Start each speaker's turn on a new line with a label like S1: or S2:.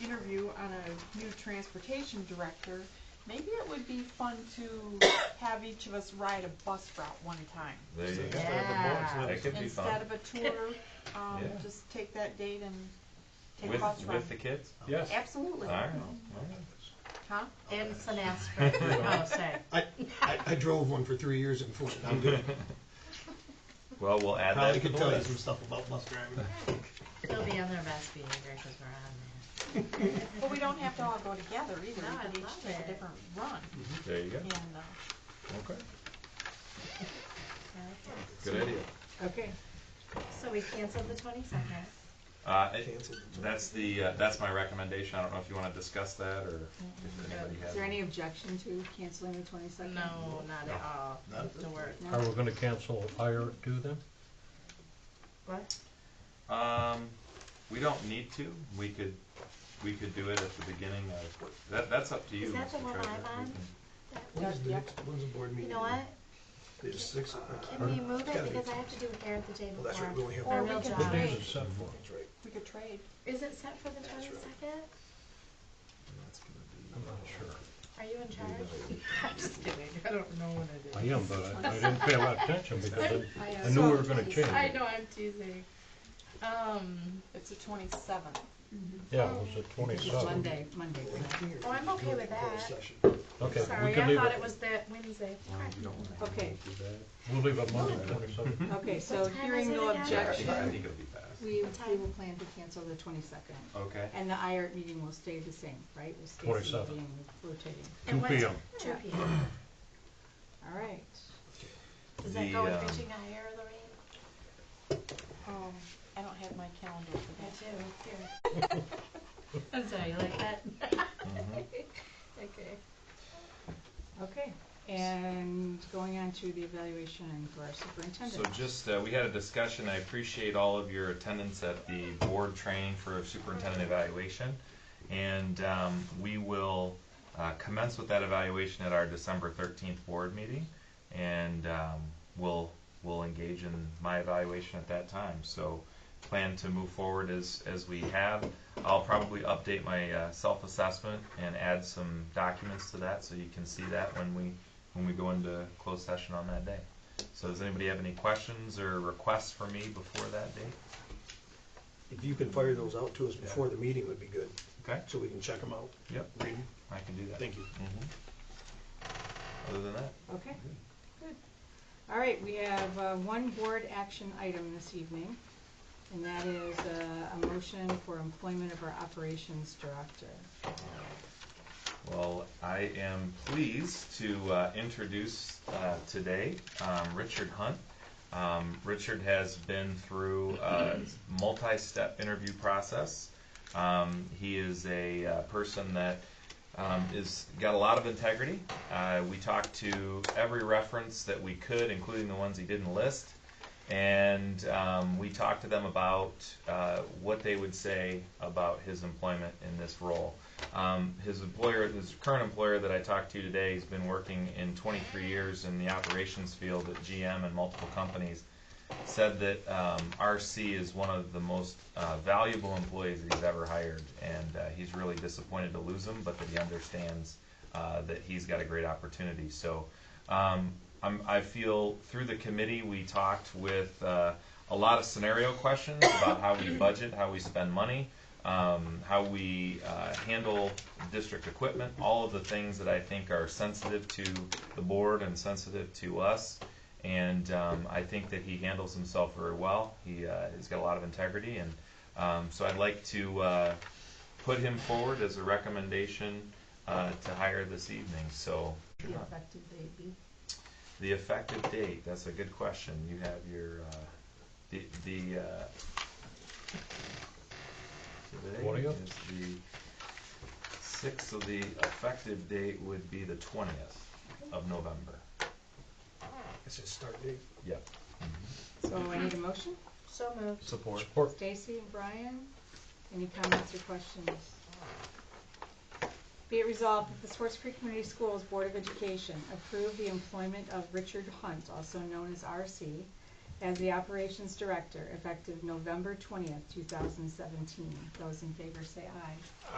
S1: interview on a new transportation director, maybe it would be fun to have each of us ride a bus route one time.
S2: There you go.
S3: Yeah.
S2: That could be
S1: Instead
S2: fun.
S1: of a tour, um,
S2: Yeah.
S1: just take that date and take a
S2: With,
S1: bus ride.
S2: with the kids?
S4: Yes.
S1: Absolutely.
S2: All right.
S1: Huh?
S3: And Sinastra, oh, sorry.
S5: I, I, I drove one for three years in Fort. I'm good.
S2: Well, we'll add that
S5: Probably
S2: to
S5: could
S2: the
S5: tell you some
S2: list.
S5: stuff about bus driving.
S3: They'll be on their best behavior because we're on
S1: But we don't have to all go together either,
S3: No, I
S1: we could each
S3: love
S1: take
S3: it.
S1: a different run,
S2: There you go.
S1: and, uh,
S2: Okay.
S3: there.
S2: Good idea.
S3: Okay. So we canceled the twenty-second.
S2: Uh, it-
S5: Canceled.
S2: that's the, uh, that's my recommendation. I don't know if you want to discuss that or
S3: Mm-hmm.
S2: if anybody has.
S6: Is there any objection to canceling the twenty-second?
S3: No, not at all.
S5: Not at this
S3: Don't worry.
S4: Are we gonna cancel hire two then?
S3: What?
S2: Um, we don't need to. We could, we could do it at the beginning of, that, that's up to you.
S3: Is that the
S2: Mr.
S3: one
S2: Treasurer.
S3: I'm on?
S5: When's the next, when's the board
S3: You
S5: meeting?
S3: know what?
S5: There's six. uh,
S3: Can we move
S5: gotta
S3: it
S5: be-
S3: because I have to do hair the day
S5: Well, that's right, we
S3: before. My
S5: only have.
S1: Or
S5: one.
S1: we
S3: real
S1: can
S3: job.
S1: trade.
S4: It is set for.
S5: That's right.
S1: we could trade.
S3: Is it set for the twenty-second?
S4: I'm not sure.
S3: Are you in charge? I'm just kidding. I don't know when
S4: I am, but I, I didn't pay a lot of attention because I,
S6: I,
S4: I
S6: uh,
S4: knew we were gonna change
S3: I
S4: it.
S3: know, I'm teasing. Um,
S1: It's the twenty-seventh.
S4: Yeah, it was the
S6: it's
S4: twenty-seventh.
S6: Monday, Monday.
S3: oh, I'm okay with
S5: Closed
S3: that.
S5: session.
S4: Okay, we
S3: Sorry,
S4: can
S3: I
S4: leave
S3: thought it
S4: it,
S3: was that Wednesday.
S6: Okay,
S4: we'll leave it Monday twenty-seventh.
S6: okay, so
S3: What time is
S6: hearing
S3: it
S6: no
S3: again?
S2: Yeah, I
S6: objection,
S2: think I think it'll be fast.
S6: we, we will plan to cancel the twenty-second.
S2: Okay.
S6: And the IART meeting will stay the same, right? We'll stay
S4: 27.
S6: being rotating.
S3: And what-
S4: 2 p.m..
S3: Two P M.
S6: All right.
S3: Does that
S2: The,
S3: go with
S2: um,
S3: reaching a higher, Lorraine?
S1: Um, I don't have my calendar for
S3: I
S1: that.
S3: do, here. I'm sorry, you like that? Okay.
S6: Okay, and going on to the evaluation for our superintendent.
S2: So just, uh, we had a discussion, I appreciate all of your attendance at the board training for superintendent evaluation. And, um, we will, uh, commence with that evaluation at our December thirteenth board meeting. And, um, we'll, we'll engage in my evaluation at that time, so plan to move forward as, as we have. I'll probably update my, uh, self-assessment and add some documents to that, so you can see that when we, when we go into closed session on that day. So does anybody have any questions or requests for me before that date?
S5: If you could fire those out to us before the meeting would be good,
S2: Okay,
S5: so we can check them out.
S2: yep,
S5: Read 'em.
S2: I can do that.
S5: Thank you.
S2: Mhm. Other than that,
S6: Okay, good. All right, we have uh, one board action item this evening, and that is uh, a motion for employment of our operations director.
S2: well, I am pleased to uh, introduce uh, today um, Richard Hunt. Um, Richard has been through a multi-step interview process. Um, He is a uh, person that um, is got a lot of integrity. Uh, we talked to every reference that we could, including the ones he didn't list, and um, we talked to them about uh, what they would say about his employment in this role. Um, his employer, his current employer that I talked to today, he's been working in 23 years in the operations field at GM and multiple companies. Said that um, RC is one of the most uh, valuable employees that he's ever hired, and uh, he's really disappointed to lose him, but that he understands uh, that he's got a great opportunity. So um, I'm, I feel through the committee, we talked with uh, a lot of scenario questions about how we budget, how we spend money, um, how we uh, handle district equipment, all of the things that I think are sensitive to the board and sensitive to us. And um, I think that he handles himself very well. He uh, has got a lot of integrity, and um, so I'd like to uh, put him forward as a recommendation uh, to hire this evening. So
S6: The effective date be?
S2: the effective date, that's a good question. You have your, uh, the, the, uh, today
S4: Twentieth?
S2: is the sixth, so the effective date would be the twentieth of November.
S5: It's a start date.
S2: Yep.
S6: So I need a motion.
S3: So moved.
S2: Support.
S6: Stacy and Brian, any comments or questions? Be it resolved that the Swartz Creek Community Schools Board of Education approve the employment of Richard Hunt, also known as RC, as the Operations Director effective November twentieth, two thousand seventeen. Those in favor say aye.